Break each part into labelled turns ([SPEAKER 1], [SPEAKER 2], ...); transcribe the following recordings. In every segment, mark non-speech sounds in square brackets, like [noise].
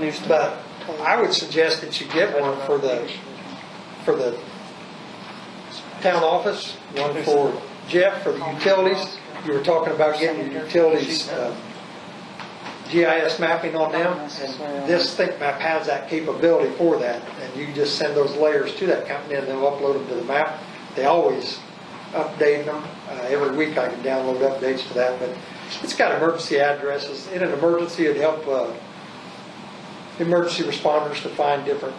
[SPEAKER 1] New stuff.
[SPEAKER 2] But I would suggest that you get one for the, for the town office, one for Jeff for the utilities. You were talking about getting your utilities, uh, GIS mapping on them. And this Think Map has that capability for that. And you just send those layers to that company and they'll upload them to the map. They always update them. Uh, Every week I can download updates to that, but it's got emergency addresses. In an emergency, it'd help, uh, emergency responders to find different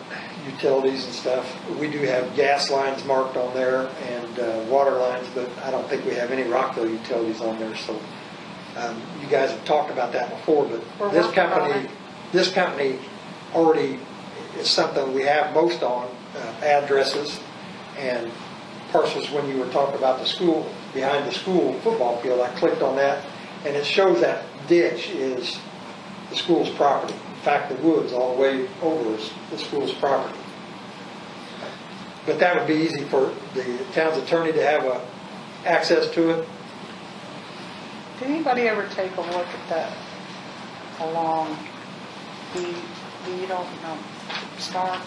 [SPEAKER 2] utilities and stuff. We do have gas lines marked on there and uh, water lines, but I don't think we have any Rockville utilities on there, so um, you guys have talked about that before,
[SPEAKER 3] We're
[SPEAKER 2] but this
[SPEAKER 3] working on
[SPEAKER 2] company,
[SPEAKER 3] it.
[SPEAKER 2] this company already is something we have most on, uh, addresses and parcels when you were talking about the school, behind the school football field, I clicked on that, and it shows that ditch is the school's property. In fact, the woods all the way over is the school's property. But that would be easy for the town's attorney to have uh, access to it.
[SPEAKER 3] Did anybody ever take a look at that along the, the, you don't know, Stark?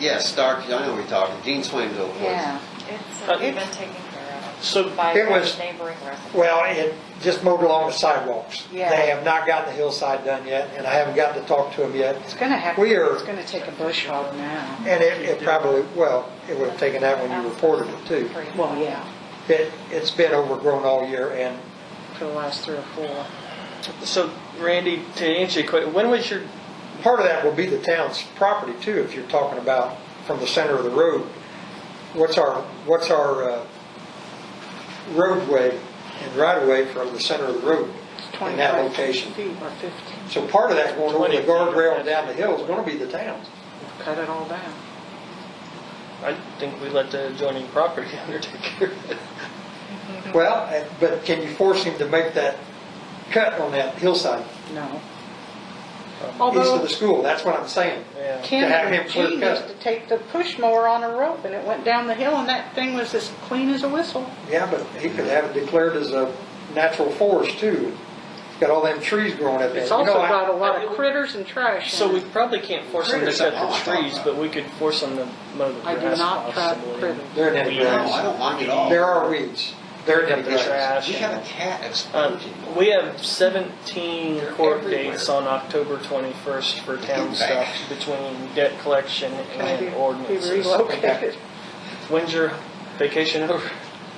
[SPEAKER 4] Yeah, Stark, I know what you're talking, Dean Swain's old place.
[SPEAKER 3] Yeah.
[SPEAKER 5] It's
[SPEAKER 1] Uh,
[SPEAKER 5] already been taken care of
[SPEAKER 1] So
[SPEAKER 5] by
[SPEAKER 2] it was-
[SPEAKER 5] the neighboring residents.
[SPEAKER 2] Well, it just mowed along the sidewalks.
[SPEAKER 3] Yeah.
[SPEAKER 2] They have not gotten the hillside done yet, and I haven't gotten to talk to them yet.
[SPEAKER 3] It's gonna have,
[SPEAKER 2] We are-
[SPEAKER 3] it's gonna take a bush hog now.
[SPEAKER 2] And it it probably, well, it would have taken that when you reported it too.
[SPEAKER 5] Three.
[SPEAKER 3] Well, yeah,
[SPEAKER 2] It, it's been overgrown all year, and
[SPEAKER 3] for the last three or four.
[SPEAKER 1] So Randy, to answer your question, when was your,
[SPEAKER 2] part of that will be the town's property too, if you're talking about from the center of the road. What's our, what's our uh, roadway and right-of-way from the center of the road in that
[SPEAKER 3] 25
[SPEAKER 2] location?
[SPEAKER 3] Feet or 15,
[SPEAKER 2] So part of that going over
[SPEAKER 1] 20
[SPEAKER 2] the
[SPEAKER 1] feet.
[SPEAKER 2] guardrail and down the hill is gonna be the town's.
[SPEAKER 3] cut it all down.
[SPEAKER 1] I think we let the adjoining property [laughs] owner take care of it.
[SPEAKER 2] Well, uh, but can you force him to make that cut on that hillside
[SPEAKER 3] No.
[SPEAKER 2] east of
[SPEAKER 3] Although
[SPEAKER 2] the school? That's what I'm saying. to
[SPEAKER 1] Yeah.
[SPEAKER 2] have
[SPEAKER 3] Ken
[SPEAKER 2] him
[SPEAKER 3] and
[SPEAKER 2] clear
[SPEAKER 3] Gene
[SPEAKER 2] cut.
[SPEAKER 3] used to take the push mower on a rope and it went down the hill and that thing was as clean as a whistle.
[SPEAKER 2] Yeah, but he could have it declared as a natural forest too. It's got all them trees growing up there.
[SPEAKER 3] It's
[SPEAKER 2] You
[SPEAKER 3] also
[SPEAKER 2] know, I-
[SPEAKER 3] got a lot
[SPEAKER 1] I-
[SPEAKER 3] of critters and trash.
[SPEAKER 1] So
[SPEAKER 3] in
[SPEAKER 1] we
[SPEAKER 3] it.
[SPEAKER 1] probably can't force them to cut the trees, but we could force them to mow the
[SPEAKER 3] I
[SPEAKER 1] grass.
[SPEAKER 3] do not trap
[SPEAKER 1] possibly.
[SPEAKER 3] critters.
[SPEAKER 2] They're in any
[SPEAKER 1] We-
[SPEAKER 4] No,
[SPEAKER 2] grass.
[SPEAKER 4] I don't mind it at all.
[SPEAKER 2] There are weeds. They're in
[SPEAKER 1] Cut
[SPEAKER 2] the
[SPEAKER 1] the
[SPEAKER 2] grass.
[SPEAKER 1] trash.
[SPEAKER 4] We had a cat
[SPEAKER 1] Um,
[SPEAKER 4] explosion.
[SPEAKER 1] We have 17 court
[SPEAKER 4] everywhere.
[SPEAKER 1] dates on October 21st for town
[SPEAKER 4] Back.
[SPEAKER 1] stuff between debt collection
[SPEAKER 3] Maybe
[SPEAKER 1] and
[SPEAKER 3] be
[SPEAKER 1] ordinances.
[SPEAKER 3] relocated.
[SPEAKER 1] When's your vacation over?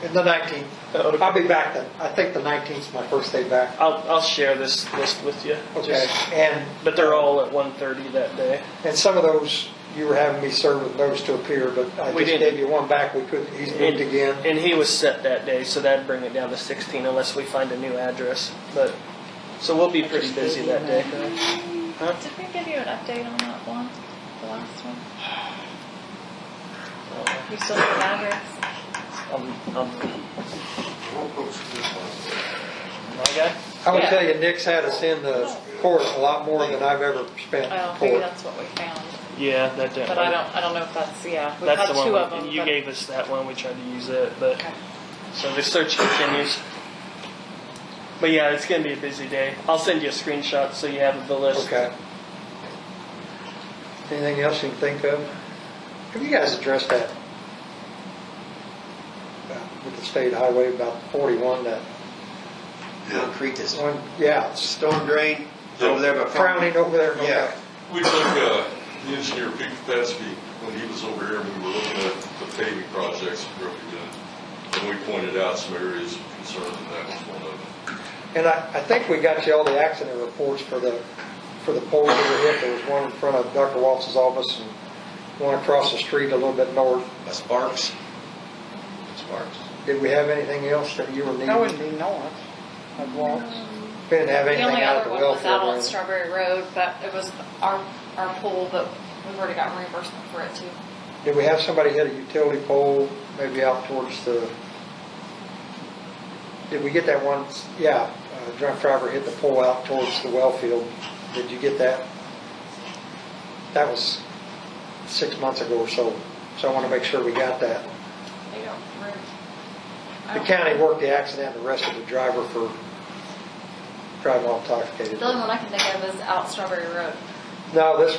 [SPEAKER 2] In the nineteenth.
[SPEAKER 1] Okay.
[SPEAKER 2] I'll be back then. I think the nineteenth's my first day back.
[SPEAKER 1] I'll, I'll share this list with you.
[SPEAKER 2] Okay,
[SPEAKER 1] Just-
[SPEAKER 2] and,
[SPEAKER 1] But they're all at 1:30 that day.
[SPEAKER 2] and some of those, you were having me serve with those to appear, but I
[SPEAKER 1] We
[SPEAKER 2] just
[SPEAKER 1] didn't.
[SPEAKER 2] gave you one back. We couldn't, he's moved
[SPEAKER 1] And-
[SPEAKER 2] again.
[SPEAKER 1] And he was set that day, so that'd bring it down to 16 unless we find a new address. But, so we'll be pretty busy that day. Huh?
[SPEAKER 5] Did we give you an update on that one, the last one? You still have an address?
[SPEAKER 1] Um, um, My guy?
[SPEAKER 2] I would
[SPEAKER 5] Yeah.
[SPEAKER 2] tell you, Nick's had us in the court a lot more than I've ever spent in
[SPEAKER 5] Well, maybe
[SPEAKER 2] court.
[SPEAKER 5] that's what we found,
[SPEAKER 1] Yeah, that day.
[SPEAKER 5] but I don't, I don't know if that's, yeah, we've
[SPEAKER 1] That's
[SPEAKER 5] had
[SPEAKER 1] the one,
[SPEAKER 5] two of
[SPEAKER 1] we-
[SPEAKER 5] them.
[SPEAKER 1] you
[SPEAKER 5] but-
[SPEAKER 1] gave us that one, we tried to use it, but,
[SPEAKER 5] Okay.
[SPEAKER 1] so the search continues. But yeah, it's gonna be a busy day. I'll send you a screenshot so you have the list.
[SPEAKER 2] Okay. Anything else you can think of? Have you guys addressed that? Uh, With the state highway about 41, that
[SPEAKER 4] Concrete is
[SPEAKER 2] one, yeah, it's
[SPEAKER 4] storm drain over there by.
[SPEAKER 2] frowning over there. okay.
[SPEAKER 4] Yeah.
[SPEAKER 6] We took uh, the engineer Pete Petske, when he was over here, and we were looking at the paving projects in Brookhaven, and we pointed out some areas of concern, and that was one of them.
[SPEAKER 2] And I, I think we got you all the accident reports for the, for the poles that were hit. There was one in front of Dr. Waltz's office and one across the street a little bit north.
[SPEAKER 4] By Sparks. Sparks.
[SPEAKER 2] Did we have anything else that you were needing?
[SPEAKER 3] That wouldn't be north of Waltz.
[SPEAKER 2] We Didn't have
[SPEAKER 5] The
[SPEAKER 2] anything
[SPEAKER 5] only
[SPEAKER 2] out of
[SPEAKER 5] other
[SPEAKER 2] the
[SPEAKER 5] one was
[SPEAKER 2] welfare.
[SPEAKER 5] out on
[SPEAKER 2] or anything.
[SPEAKER 5] Strawberry Road, but it was our, our pool, but we've already got reimbursement for it too.
[SPEAKER 2] Did we have somebody hit a utility pole, maybe out towards the, did we get that one, yeah, a drunk driver hit the pole out towards the well field. Did you get that? That was six months ago or so, so I want to make sure we got that.
[SPEAKER 5] They don't, re- I
[SPEAKER 2] The
[SPEAKER 5] don't-
[SPEAKER 2] county worked the accident and arrested the driver for driving while intoxicated.
[SPEAKER 5] The only one I can think of is out Strawberry Road.
[SPEAKER 2] No, this